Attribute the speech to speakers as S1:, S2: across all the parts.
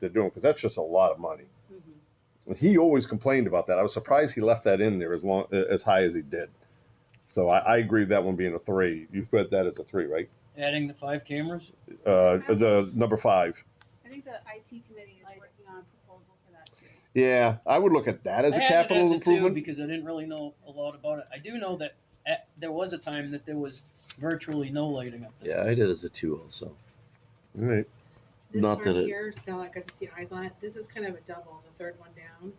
S1: they're doing because that's just a lot of money.
S2: Mm-hmm.
S1: And he always complained about that. I was surprised he left that in there as long as high as he did. So I, I agree with that one being a three. You put that as a three, right?
S3: Adding the five cameras?
S1: Uh, the number five.
S2: I think the IT committee is working on a proposal for that too.
S1: Yeah, I would look at that as a
S3: I had it
S1: capital
S3: as a two
S1: improvement.
S3: Because I didn't really know a lot about it. I do know that at, there was a time that there was virtually no lighting up there.
S4: Yeah, I did as a two also.
S1: All right.
S5: This
S4: Not
S5: part
S4: that it-
S5: here, now I got to see eyes on it, this is kind of a double, the third one down.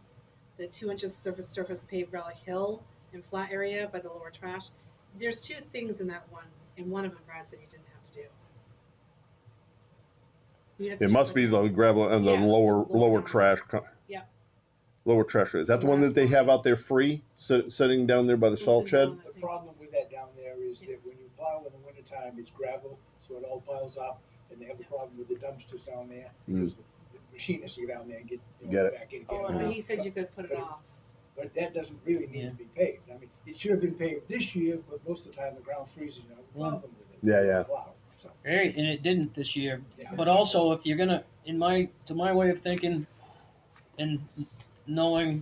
S5: The two inches surface, surface paved relic hill and flat area by the lower trash. There's two things in that one, and one of them Brad said you didn't have to do. You'd have to
S1: It
S5: check
S1: must
S5: with-
S1: be the gravel and the
S5: Yeah,
S1: lower,
S5: lower
S1: lower
S5: down.
S1: trash. co-
S5: Yeah.
S1: Lower trash. Is that the one that they have out there free, sit, sitting down there by the salt
S5: Something
S1: shed?
S5: down
S6: The
S5: there.
S6: problem with that down there is that when you plow in the wintertime, it's gravel, so it all piles up, and they have a problem with the dumpsters down there, because the the machinists go down there and get, you
S1: Hmm. Get
S6: know,
S1: it.
S6: back in.
S5: Oh,
S6: get it.
S5: but he said you could put it off.
S6: But that doesn't really need to be paved, I mean, it should have been paved this year, but most of the time the ground freezes, you know, the problem with it.
S1: Yeah, yeah.
S6: Wow, so,
S3: Right, and it didn't this year.
S6: yeah.
S3: But also, if you're gonna, in my, to my way of thinking, and knowing,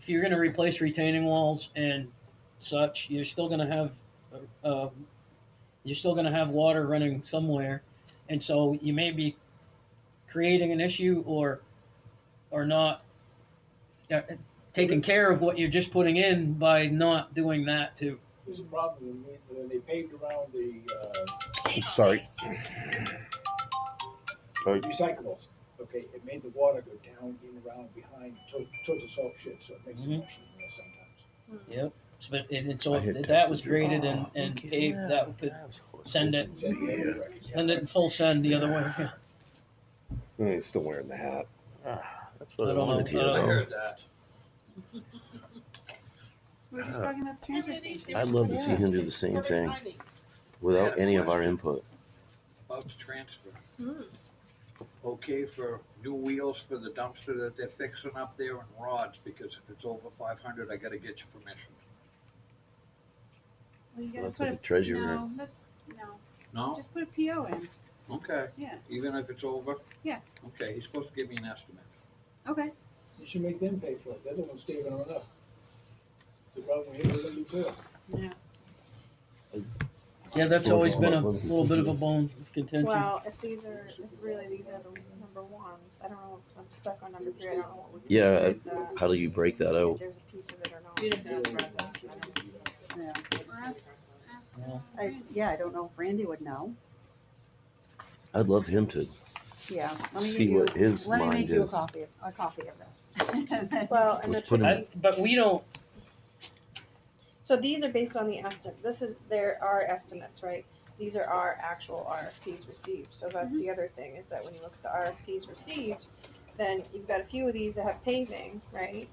S3: if you're gonna replace retaining walls and such, you're still gonna have, uh, uh, you're still gonna have water running somewhere, and so you may be creating an issue or, or not uh, taking care of what you're just putting in by not doing that too.
S6: There's a problem when, we- when they paved around the, uh,
S1: Sorry. Sorry.
S6: recyclables, okay, it made the water go down in around behind, to- towards the salt shed, so it makes a
S5: Mm-hmm.
S3: Mhm.
S6: rush in there sometimes.
S3: Yep. So, but- and, and so
S1: I hit
S3: that
S1: Texas.
S3: was
S1: Oh,
S3: graded and, and paved, that would put, send it,
S6: Is that the other direction?
S3: send it in full send the other way.
S1: Mm, He's still wearing the hat.
S4: That's what
S3: I
S4: I
S3: don't
S4: wanted
S3: know. I
S4: to
S6: Oh.
S3: heard
S2: We were just
S4: Ah.
S2: talking about the transfer station.
S4: hear. I'd love to see him do the same thing without any of our input.
S7: About the transfer,
S5: Hmm.
S7: okay for new wheels for the dumpster that they're fixing up there and rods, because if it's over five hundred, I gotta get your permission.
S2: Well, you gotta
S4: That's
S2: put
S4: like
S2: a-
S4: a treasurer.
S2: No, that's, no,
S7: No?
S2: just put a PO in,
S7: Okay,
S2: yeah,
S7: even if it's over?
S2: Yeah.
S7: Okay, he's supposed to give me an estimate.
S2: okay.
S6: You should make them pay for it, they're the ones saving on up. The problem here is that you do it.
S5: Yeah.
S3: Yeah, that's always been a little bit of a bone of contention.
S2: Well, if these are, if really these are the number ones, I don't know, if I'm stuck on number three, I don't know what we. can do
S4: Yeah,
S2: with that,
S4: How do you break that
S2: If
S4: out?
S2: there's a piece of it or not.
S5: You'd have to ask Brad that. I don't-
S8: Yeah,
S5: I just-
S3: Yeah.
S8: I, yeah, I don't know if Randy would know,
S4: I'd love him to
S8: yeah. let me give
S4: see
S8: you-
S4: what his
S8: Let me make
S4: mind
S8: you a
S4: is.
S8: copy, of- a copy of this.
S9: Well, and the,
S4: Let's put him,
S3: I- But we don't,
S9: so these are based on the estimate, this is, there are estimates, right? These are our actual RFPs received, so that's
S2: Mm-hmm.
S9: the other thing, is that when you look at the RFPs received, then you've got a few of these that have paving, right?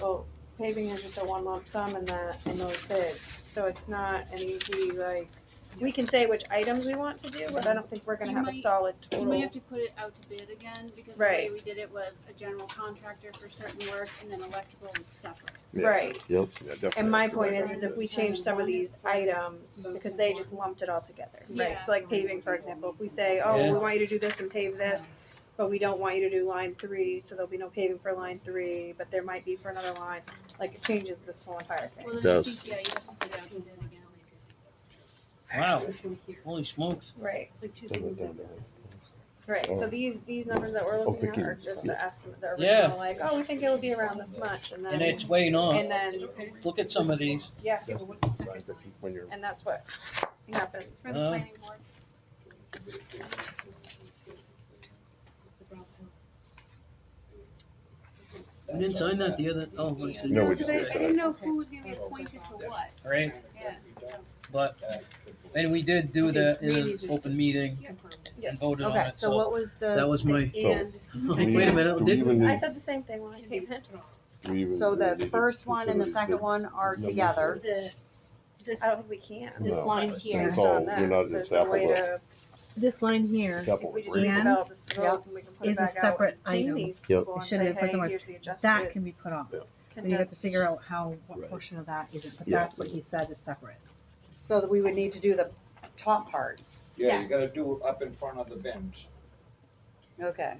S9: Well, paving is just a one lump sum in that, in those bids, so it's not an easy, like, we can say which items we want to do, but I don't think we're gonna
S2: You
S9: have a
S2: might-
S9: solid
S2: You
S9: total.
S2: may have to put it out to bid again, because the way
S9: Right.
S2: we did it was a general contractor for certain work, and then electrical was separate.
S1: Yeah.
S9: Right,
S4: yep,
S1: Yeah, definitely.
S9: And my
S1: That's the
S9: point
S1: right
S9: is, is
S1: idea.
S9: if we change some of these items, because they just lumped it all together, right? So like paving, for example, if we say, oh, we
S3: Yeah.
S9: want you to do this and pave this, but we don't want you to do line three, so there'll be no paving for line three, but there might be for another line, like it changes this whole entire thing.
S2: Well, then I
S4: Does.
S2: think, yeah, you have to put it out to bid again.
S3: wow,
S5: This one here,
S3: holy smokes.
S9: Right,
S5: it's like two
S1: Send
S5: things
S1: it down
S5: in
S1: there.
S5: there.
S9: right, so
S1: Oh.
S9: these, these numbers that we're
S1: Oh,
S9: looking at
S1: Vicky,
S9: are just
S1: yeah.
S9: the estimate, the
S3: Yeah.
S9: original, like, oh, we think it'll be around this much, and
S3: And
S9: then,
S3: it's way
S9: and
S3: off.
S9: then,
S3: Look at some of these.
S9: yeah,
S1: That's
S5: What's the second
S1: right,
S5: line?
S1: but When you're,
S9: and that's what happens.
S2: For the
S3: Uh,
S2: planning board.
S5: What's the brown one?
S3: We didn't sign that the other, oh, I see.
S1: No, we
S2: because
S1: just
S2: I,
S1: did
S2: I
S1: that.
S2: didn't know who was gonna be appointed to what,
S3: Right,
S2: yeah.
S3: but, and we did do that in an open meeting
S5: Confirmed.
S3: and voted on
S8: Okay,
S3: it,
S8: so
S3: so
S8: what was
S3: that
S8: the,
S3: was my, hmm.
S1: So-
S8: and,
S3: like, wait a minute,
S1: do we even
S3: didn't,
S9: I
S1: need,
S9: said the same thing when I came in.
S1: do we even
S8: so
S1: really
S8: the
S1: need to
S8: first one and the
S1: consider
S8: second
S1: these
S8: one are
S1: numbers?
S8: together.
S9: The, this.
S10: Oh,
S9: I don't think we can.
S1: This No. line
S8: here.
S1: It's all- you're not- it's apple to-
S10: This line here
S1: It's apple
S9: If we
S1: with
S9: just
S1: grape.
S10: Yeah.
S9: develop this
S8: Yep.
S9: scope and we can put it
S10: is a
S9: back out
S10: separate
S9: and clean
S10: item.
S9: these
S4: Yep.
S9: people
S10: It
S9: and
S10: shouldn't
S9: say,
S10: have been
S9: hey,
S10: somewhere-
S9: here's the
S10: That
S9: adjusted
S10: can be put off.
S1: Yeah.
S10: Then you have
S9: condensed.
S10: to figure out how, what
S4: Right.
S10: portion of that isn't, but
S4: Yeah.
S10: that's what he said is separate.
S8: So that we would need to do the top part.
S7: Yeah, you gotta do it up in front of the bins.
S8: Okay.